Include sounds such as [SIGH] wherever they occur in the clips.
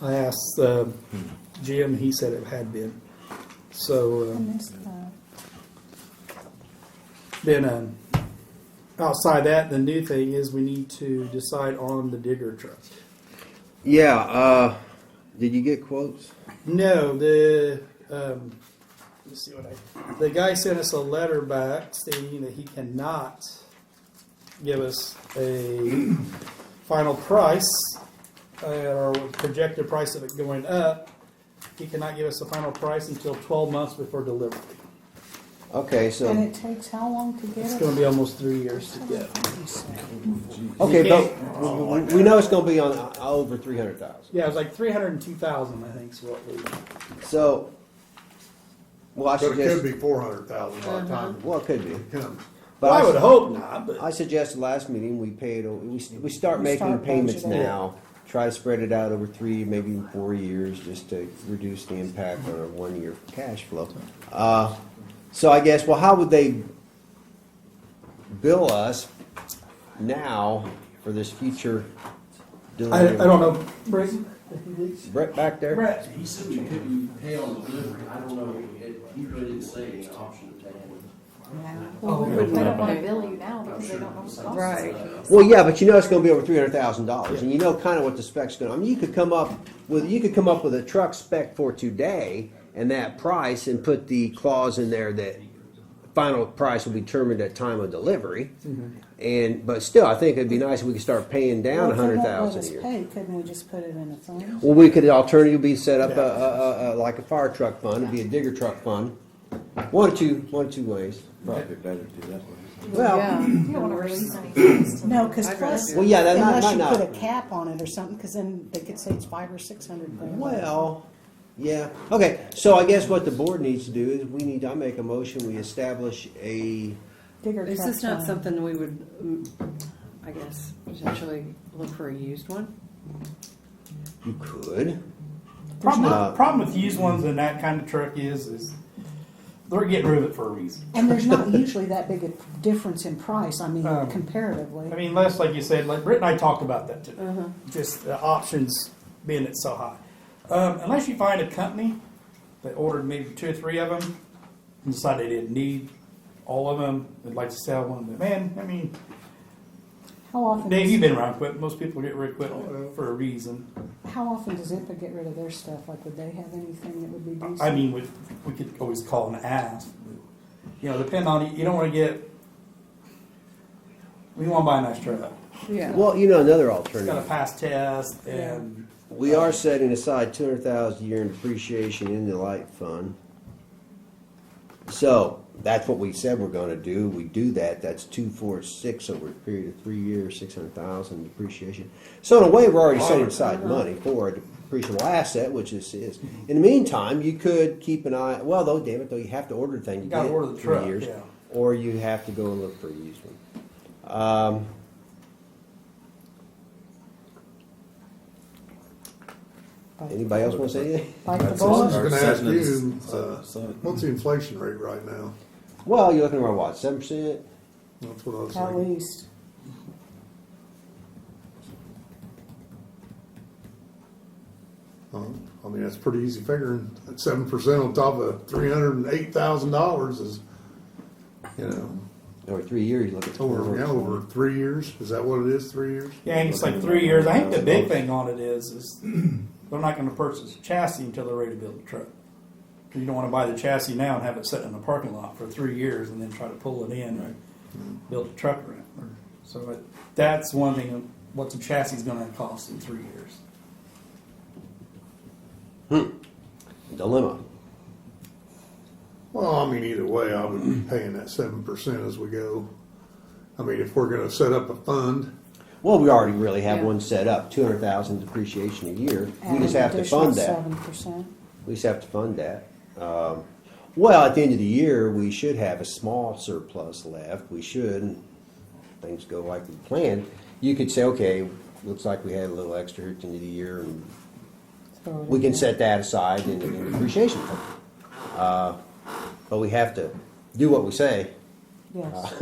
I asked uh, Jim, he said it had been. So I uh, missed that. then, um, outside that, the new thing is we need to decide on the digger truck. Yeah, uh, did you get quotes? No, the um, let's see what I. The guy sent us a letter back stating that he cannot give us a final price uh, or projected price of it going up. He cannot give us a final price until 12 months before delivery. Okay, And so, it takes how long to get It's it? going to be almost three years to get. okay, you but we- we- we know it's gonna be on uh, over three hundred thousand. Yeah, it was like 302,000, I think, is what we. So, well, I But it could suggest, be four hundred thousand by the time well, it could be. it comes. But I I would su- hope not, but I suggest last meeting, we paid, we, we start We making start payments budgeting. now. Try to spread it out over three, maybe even four years, just to reduce the impact on our one-year cash flow. Uh, so I guess, well, how would they bill us now for this future I, I delivery? don't know. Brett, if you did- Brett back there? Brett, He said you couldn't pay on delivery, I don't know, it, he really didn't say an option to take it. Well, They don't wanna bill you now I'm because they sure don't know what the cost Right. is. Well, yeah, but you know it's going to be over three hundred thousand dollars, and you know kind of what the spec's going. to I mean, you could come up with you could come up with a truck spec for today and that price, and put the clause in there that final price will be determined at time of delivery. And but still, I think it'd be nice if we could start paying down a if they won't hundred let thousand us a year. Pay, couldn't we just put it in a fund? Well, we could alternatively set up a, a, a, a like a fire truck fund, it'd be a digger truck fund. One or two, one or two ways. Probably better to do that way. Well, [LAUGHS] You don't wanna release any funds to. No, them. because plus, Well, yeah, that might- unless might you not- put a cap on it or something, because then they could say it's five or six hundred. grand. Well, yeah, okay, so I guess what the board needs to do is, we need, I make a motion, we establish a, Digger Is truck this not fund. something we would, mm, I guess, potentially look for a used one? you could. Problem, Uh, problem with used ones and that kind of truck is, is they're getting rid of it for a reason. And there's [LAUGHS] not usually that big a difference in price, I mean Um, comparatively. I mean, less like you said, like Britt and I talked about that today. Uh-huh. Just the options being it's so high. Um, unless you find a company that ordered maybe two or three of them and decided they didn't need all of them, they'd like to sell one. But man, I mean, How often, Dave, you've does, been around quick. Most people get rid of equipment for a reason. how often does IPA get rid of their stuff? Like, would they have anything that would be decent? I mean, we, we could always call and ask. You know, depend on, you don't wanna get, we wanna buy a nice truck. Yeah. Well, you know, another It's gotta alternative, pass tests and, we are setting aside two hundred thousand a year in depreciation in the light fund. So, that's what we said we're gonna do, we do that, that's two, four, six over a period of three years, six hundred thousand depreciation. So in a way, we're already setting aside Uh-huh. money for a depreciable asset, which this is. In the meantime, you could keep an eye, well, though, damn it, though, you have to order the thing, you get Gotta it order the in truck, three years. yeah. Or you have to go and look for a used one. Um, Bite the anybody else wanna say anything? Bite the That's Well, I bullet. was Or gonna ask seven is- you, uh, seven. what's the inflation rate right now? Well, you're looking around what, seven percent? That's what I was At thinking. least. Um, I mean, that's pretty easy figuring. Seven percent on top of three hundred and eight thousand dollars is, you know, Over three years, you look at. over, yeah, over three years. Is that what it is, three years? yeah, and it's like three years. I think the big thing on it is, is [CLEARS THROAT] they're not gonna purchase a chassis until they're ready to build the truck. 'Cause you don't wanna buy the chassis now and have it sitting in the parking lot for three years and then try to pull it in or build a truck around it. So it- that's one thing, what's a chassis gonna cost in three years? Dilemma. Well, I mean, either way, I would be paying that seven percent as we go. I mean, if we're gonna set up a fund, Well, we already really have Yeah. one set up, two hundred thousand depreciation a year. We just have to fund that. Seven percent. We just have to fund that. Um, Well, at the end of the year, we should have a small surplus left. We should, and things go like we planned. You could say, okay, looks like we had a little extra here at the end of the year and we can set that aside in in depreciation fund. Uh, But we have to do what we say. Yes.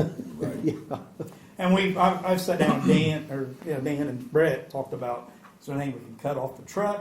And we, I've, I've sat down with Dan, or, yeah, Dan and Brett talked about, is there anything we can cut off the truck?